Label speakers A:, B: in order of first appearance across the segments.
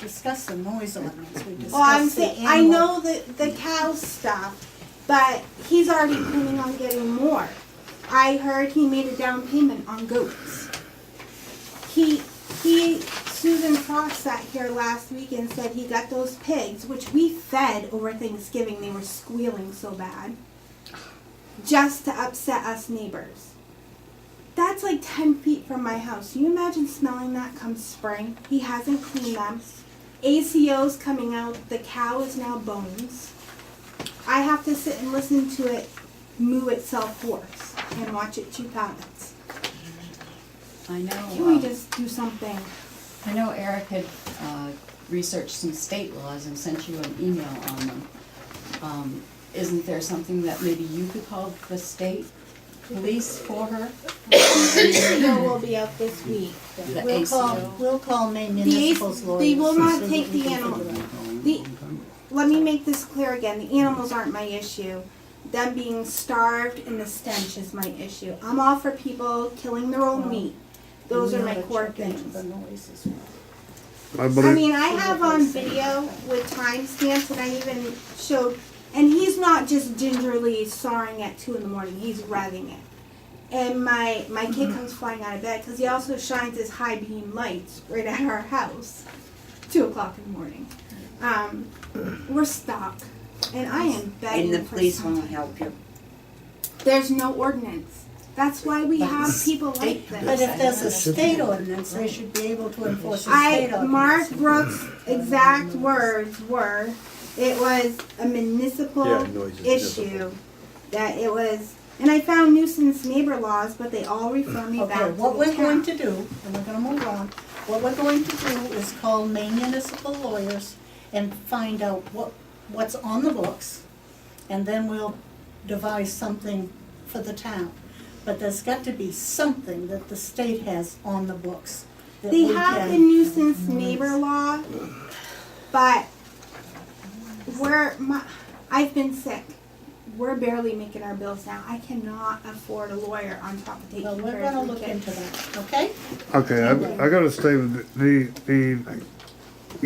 A: discussed the noise ordinance, we discussed the
B: Well, I'm
A: animal.
B: saying, I know the, the cow stuff, but he's already planning on getting more. I heard he made a down payment on goats. He, he, Susan Frost sat here last week and said he got those pigs, which we fed over Thanksgiving, they were squealing so bad, just to upset us neighbors. That's like ten feet from my house. You imagine smelling that come spring? He hasn't cleaned them. ACO's coming out. The cow is now bones. I have to sit and listen to it moo itself hoarse and watch it chew pallets.
C: I know,
B: Can we
C: uh,
B: just do something?
C: I know Eric had, uh, researched some state laws and sent you an email on them. Um, isn't there something that maybe you could call the state police for her?
B: ACO will be out this week.
C: The
A: We'll call,
C: ACO.
A: we'll call Maine
B: The
A: Municipal's
B: AC
A: lawyers.
B: they will
A: and
B: not
A: see what
B: take
A: we
B: the
A: can figure
B: animal.
A: out.
B: The, let me make this clear again. The animals aren't my issue. Them being starved and the stench is my issue. I'm all for people killing their own meat. Those
A: We
B: are my
A: oughta
B: core
A: check into
B: things.
A: The noise as well.
D: I
B: I
D: believe,
B: mean, I have on video with timestamps, and I even showed, and he's not just gingerly sawing at two in the morning. He's revving it, and my my kid
D: Mm-hmm.
B: comes flying out of bed because he also shines his high beam lights right at our house, two o'clock in the morning. Um, we're stuck, and I am begging
E: And the
B: for
E: police
B: something.
E: won't help you.
B: There's no ordinance. That's why we
C: But
B: have
C: it's
B: people like
C: state-
B: this.
A: But if there's a
C: It
D: should be.
A: state ordinance, they should be able to enforce the
B: I
A: state ordinance.
B: Mark Brooks' exact words were, it was a municipal
D: Yeah, noise is
B: issue
D: municipal.
B: that it was, and I found nuisance neighbor laws, but they all refer me back
A: Okay,
B: to
A: what
B: the
A: we're going to
B: town.
A: do, and we're gonna move on, what we're going to do is call Maine Municipal Lawyers and find out what, what's on the books, and then we'll devise something for the town. But there's got to be something that the state has on the books that
B: They
A: we
B: have
A: can-
B: the nuisance neighbor law, but we're, my, I've been sick. We're barely making our bills now. I cannot afford a lawyer on top of taking care
A: Well,
B: of
A: we're gonna
B: three
A: look
B: kids.
A: into that, okay?
D: okay, I, I gotta say, that the, the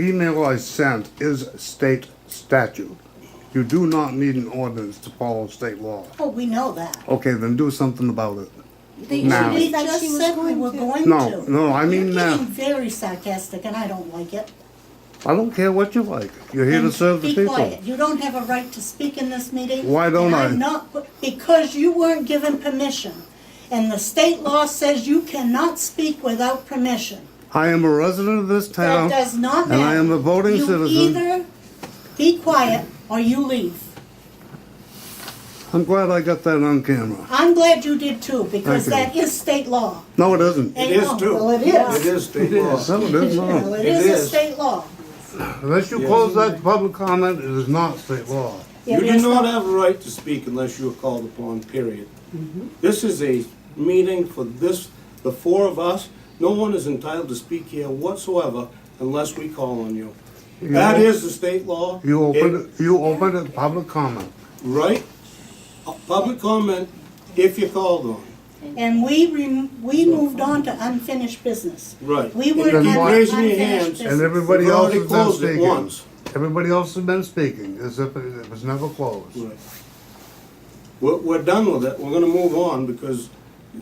D: email I sent is state statute. You do not need an ordinance to follow state law.
A: Oh, we know that.
D: Okay, then do something about it.
B: They-
D: Now-
B: she
A: We
B: said she
A: just
B: was
A: said we
B: going
A: were
B: to.
A: going to.
D: No, no, I mean,
A: You're
D: uh,
A: getting very sarcastic and I don't like it.
D: I don't care what you like, you're here to
A: And
D: serve the
A: Be
D: people.
A: quiet, you don't have a right to speak in this meeting.
D: Why don't
A: and
D: I?
A: I'm not, because you weren't given permission. And the state law says you cannot speak without permission.
D: I am a resident of this
A: That
D: town,
A: does not
D: and
A: matter.
D: I am a voting
A: You
D: citizen.
A: either be quiet or you leave.
D: I'm glad I got that on camera.
A: I'm glad you did too, because
D: Thank
A: that is state law.
D: No, it isn't.
A: It
F: is too.
A: Well, it is.
F: It is state law.
D: No, it is
A: Well,
D: not.
A: it
F: It
A: is a
F: is.
A: state law.
D: Unless you close that to public comment, it is not state law.
A: It
F: You do
A: is
F: not
A: the-
F: have a right to speak unless you are called upon, period.
A: Mm-hmm.
F: This is a meeting for this, the four of us. No one is entitled to speak here whatsoever unless we call on you. That is the state law.
D: You
F: It-
D: opened, it- you opened it public comment.
F: Right? A Public comment if you're called on.
A: And we rem, we moved on to unfinished business.
F: Right.
A: We
F: were
A: weren't
D: Then why-
A: under
F: Raise your
A: unfinished
F: hands.
D: And
A: business.
D: everybody
F: We've
D: else
F: already
D: has been
F: closed it
D: speaking.
F: once.
D: Everybody else has been speaking, as if it it was never closed.
F: Right. We're, we're done with it, we're gonna move on, because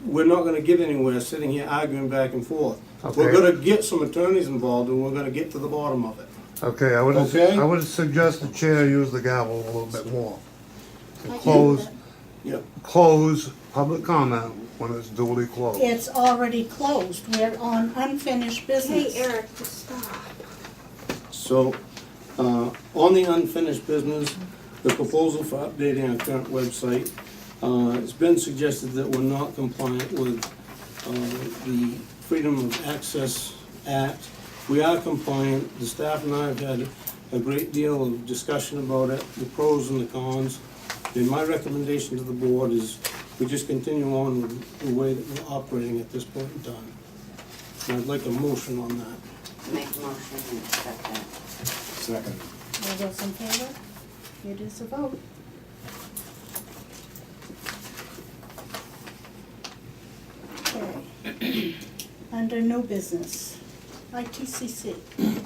F: we're not gonna get anywhere sitting here arguing back and forth. We're
D: Okay.
F: gonna get some attorneys involved, and we're gonna get to the bottom of it.
D: Okay, I would,
F: Okay.
D: I would suggest the chair use the gavel a little bit more. To
A: I can do
D: Close,
F: Yeah,
D: close public comment when it's duly closed.
A: It's already closed. We're on unfinished
B: Hey,
A: business.
B: Eric, just stop.
F: so, uh, on the unfinished business, the proposal for updating our current website, uh, it's been suggested that we're not compliant with, uh, the Freedom of Access Act. We are compliant, the staff and I have had a great deal of discussion about it, the pros and the cons. And my recommendation to the board is we just continue on with the way that we're operating at this point in time. And I'd like a motion on that.
E: Make a motion and accept that.
F: Second.
A: All those in favor? It is a vote. Okay. Under new business, ITCC.